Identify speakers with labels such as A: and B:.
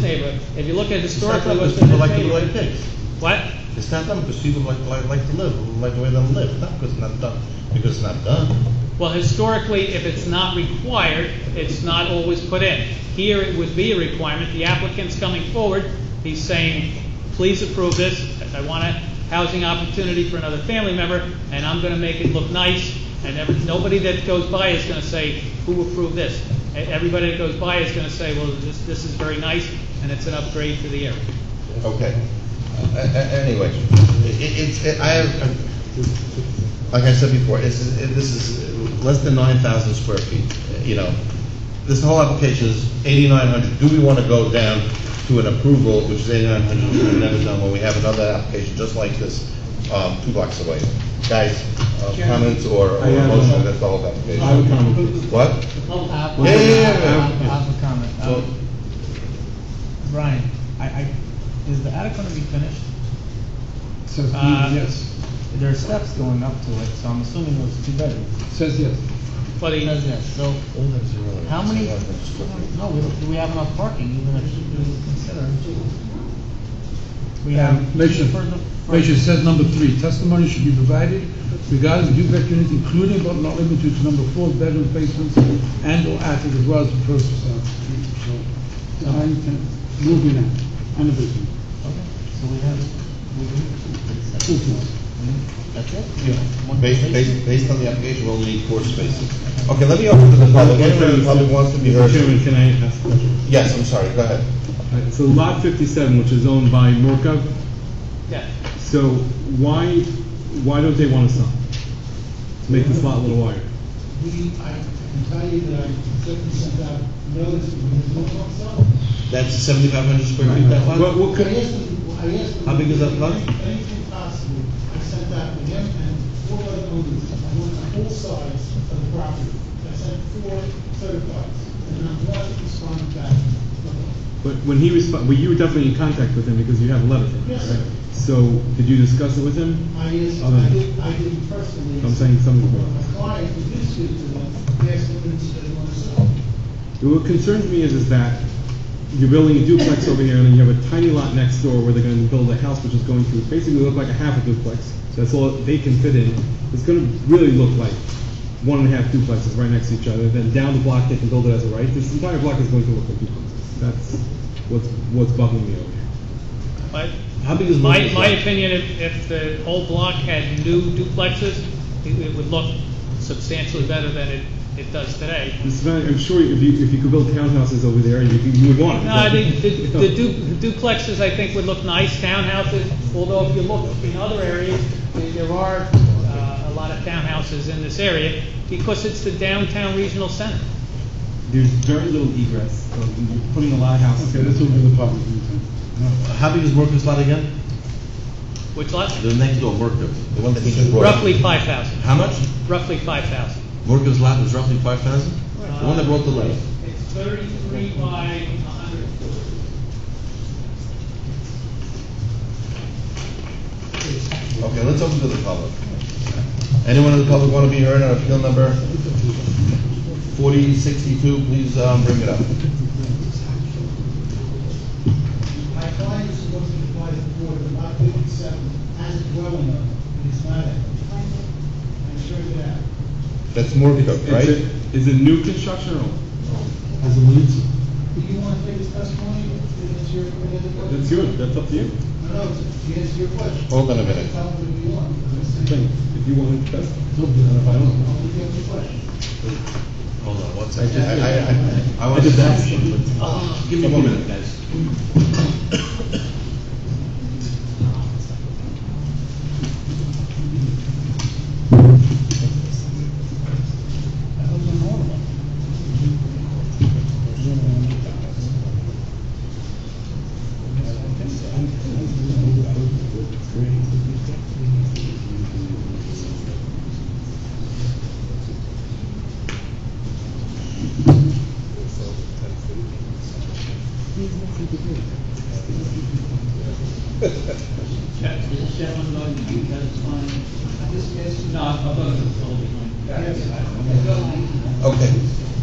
A: neighborhood. If you look at
B: It's not
A: historically
B: them,
A: what's
B: because
A: been
B: people like to live like
A: in this neighborhood.
B: pigs.
A: What?
B: It's not them, because people like, like, like to live, like the way they live, not because it's not done, because it's not done.
A: Well, historically, if it's not required, it's not always put in. Here, it would be a requirement. The applicant's coming forward, he's saying, please approve this, I want a housing opportunity for another family member, and I'm gonna make it look nice, and every, nobody that goes by is gonna say, who approved this? E- Everybody that goes by is gonna say, well, this, this is very nice, and it's an upgrade for the area.
C: Okay. A- a- Anyway, i- i- it's, i- I have, uh, like I said before, it's, it- this is less than nine thousand square feet, you know. This whole application is eighty-nine hundred. Do we want to go down to an approval, which is eighty-nine hundred, which we've never done, when we have another application just like this, um, two blocks away? Guys, uh, comments or or
D: I have, uh,
C: motion, that's the whole
D: I have a
C: application.
D: comment.
C: What?
E: I
C: Yeah, yeah, yeah.
E: I have a comment.
C: Well-
E: Um, Brian, I, I, is the attic gonna be finished?
D: Says B,
A: Uh,
D: yes.
E: There are steps going up to it, so I'm assuming it was two bedrooms.
D: Says yes.
A: But
E: It
A: he-
E: says yes, so, Um, how many, no, we don't- do we have enough parking even if you consider? We have.
D: Um, Measure,
E: two for the- for-
D: measure says number three, testimony should be provided regarding the duplex unit, including but not limited to number four bedroom basements and or attic as well as the first uh, so, so I'm uh, moving on, and a basement.
E: Okay, So we have, we
D: Two
E: need,
D: floors.
E: that's it? One
C: Based,
E: station?
C: based, based on the application, we'll need four spaces. Okay, let me open to the public, anyone in the public wants to be heard.
F: Chairman, can I ask a question?
C: Yes, I'm sorry, go ahead.
F: Uh, So lot fifty-seven, which is owned by Morkov,
A: yeah.
F: so why, why don't they want a sign? To make this lot a little wider?
G: We, I can tell you that I certainly sent out notice to the local itself.
C: That's seventy-five hundred square feet, that
F: What,
C: one?
F: what
G: I
F: could,
G: asked them, I asked them.
C: How big is that lot?
G: Anything possible, I sent out to them and four other owners, I want on all sides of the property. I sent four certifieds, and not one responded back.
F: but when he responded, well, you were definitely in contact with him because you have a letter from him,
G: Yes.
F: right? So, did you discuss it with him?
G: I asked, I
F: Other-
G: did, I didn't personally.
F: I'm saying some of
G: My
F: them.
G: client, who did speak to them, asked them if they want to sell.
F: What concerns me is, is that you're building a duplex over here and then you have a tiny lot next door where they're gonna build a house which is going to basically look like a half a duplex. That's all they can fit in. It's gonna really look like one and a half duplexes right next to each other. Then down the block, they can build it as a right. This entire block is going to look like duplexes. That's what's, what's bugging me over here.
A: But
C: How big is
A: my,
C: Morgan's
A: my
C: lot?
A: opinion, if, if the whole block had new duplexes, it, it would look substantially better than it, it does today.
F: This is, I'm sure if you, if you could build townhouses over there, you, could- you would want it.
A: No, I think the, the du- duplexes, I think, would look nice, townhouses, although if you look in other areas, there- there are, uh, a lot of townhouses in this area, because it's the downtown regional center.
F: There's very little egress, so you're putting a lot of houses.
D: Okay, this will be the public.
C: How big is Mercury's lot again?
A: Which lot?
C: The next door, Mercury, the one that he just brought. up.
A: Roughly five thousand,
C: How much?
A: roughly five thousand. Uh,
C: Mercury's lot was roughly five thousand? The one that brought the letter.
A: It's thirty-three by hundred.
C: Okay, let's open to the public. Anyone in the public want to be heard on appeal number forty sixty-two, please, um, bring it up.
G: My client is looking to buy the board of lot fifty-seven as a dwelling unit, and it's not a, I'm sure of that.
C: That's Morkov,
F: It's
C: right?
F: a- Is it new construction or? old?
D: As a municipal.
G: Do you want to take this testimony, that's your, any other question?
F: That's yours, that's up to you.
G: No, no, it's- to answer your question.
C: Hold on a minute.
G: Tell them what you want.
F: Thing, If you want to test.
G: I'll give you the question.
C: Hold on, one second. I, I, I- I want to.
F: just asked you.
C: Give me one minute, guys.
H: Mr. Chairman, Lloyd, you testifying? This is. No, I'm going to hold it.
C: Okay,